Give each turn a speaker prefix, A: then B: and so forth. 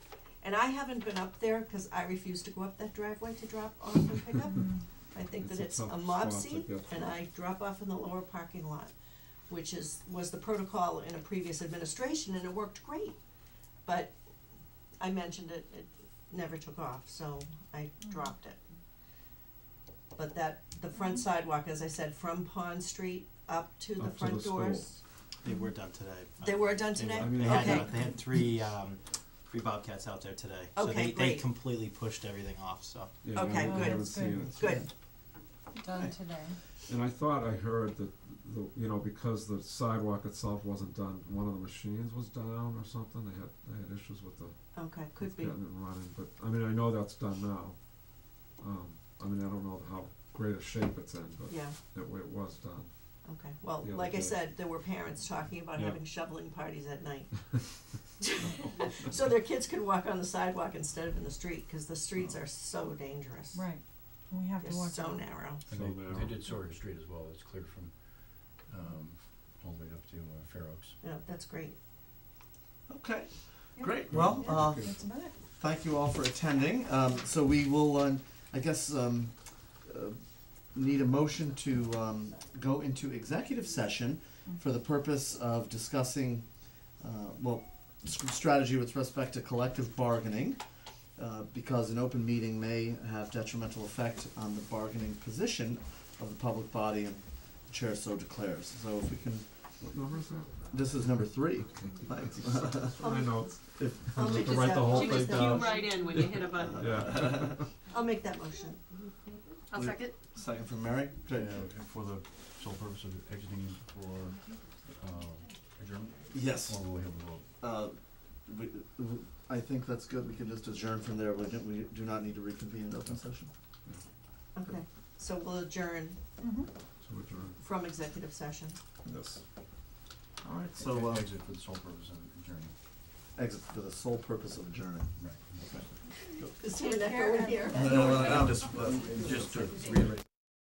A: And I haven't been up there, cause I refuse to go up that driveway to drop off and pick up. I think that it's
B: It's a
A: a
B: tough
A: mob
B: spot to
A: scene,
B: get.
A: and I drop off in the lower parking lot, which is, was the protocol in a previous administration, and it worked great. But I mentioned it, it never took off, so I dropped it. But that, the front sidewalk, as I said, from Pond Street up to the
B: Up to the
A: front
B: school.
A: doors,
C: They were done today.
A: they were done
C: They were-
A: today?
B: I mean,
C: They had,
A: Okay.
C: uh, they had three, um, three Bobcats out there today, so
A: Okay,
C: they, they
A: great.
C: completely pushed everything off, so.
B: Yeah, I
A: Okay,
B: haven't- I
A: good.
B: haven't seen it.
A: Good,
D: Done today.
B: And I thought I heard that, the, you know, because the sidewalk itself wasn't done, one of the machines was down or something, they had, they had issues with the,
A: okay, could
B: with
A: be,
B: getting it running, but, I mean, I know that's done now. Um, I mean, I don't know how great a shape it's in, but
A: yeah.
B: it, it was done.
A: Okay, well,
B: The other
A: like I
B: day.
A: said, there were parents talking about
B: Yeah.
A: having shoveling parties at night. So their kids could walk on the sidewalk instead of in the street, cause the streets
B: Oh.
A: are so dangerous.
D: Right. We have
A: They're
D: to watch.
A: so
D: out.
A: narrow.
E: And
B: So
E: they,
B: narrow.
E: they did Sawyer Street as well, it's clear from, um, all the way up to uh, Fair Oaks.
A: Yeah, that's great.
F: Okay,
D: Yep.
F: great, well,
D: Yeah.
F: uh,
D: That's about it.
F: thank you all for attending, um, so we will, um, I guess, um, uh, need a motion to, um, go into executive session for the purpose of discussing, uh, well, s- strategy with respect to collective bargaining, uh, because an open meeting may have detrimental effect on the bargaining position of the public body, and the chair so declares, so if we can,
B: What number is that?
F: this is number three, thanks.
B: I know,
F: If-
A: I'll
B: have
A: make
B: to
A: this
B: write
A: up.
B: the whole
A: She
B: thing
A: just-
B: down.
G: Cue right in when you hit a button.
B: yeah.
A: I'll make that motion.
G: I'll second.
F: Second from Mary. Good.
E: Uh, For the sole purpose of exiting for, uh, adjournment,
F: Yes.
E: or will we have a vote?
F: Uh, we, w- I think that's good. We can just adjourn from there. We, don't- we do not need to reconvene in open session.
A: Okay, so we'll adjourn
D: Mhm.
B: So adjourn.
A: from executive session.
F: Yes. All right. So
E: E-
F: uh,
E: Exit for the sole purpose of adjourning,
F: exit for the sole purpose of adjourning.
E: right.
A: Is there an echo in here?
F: No, no, no, I'm just,
E: Just to reiterate.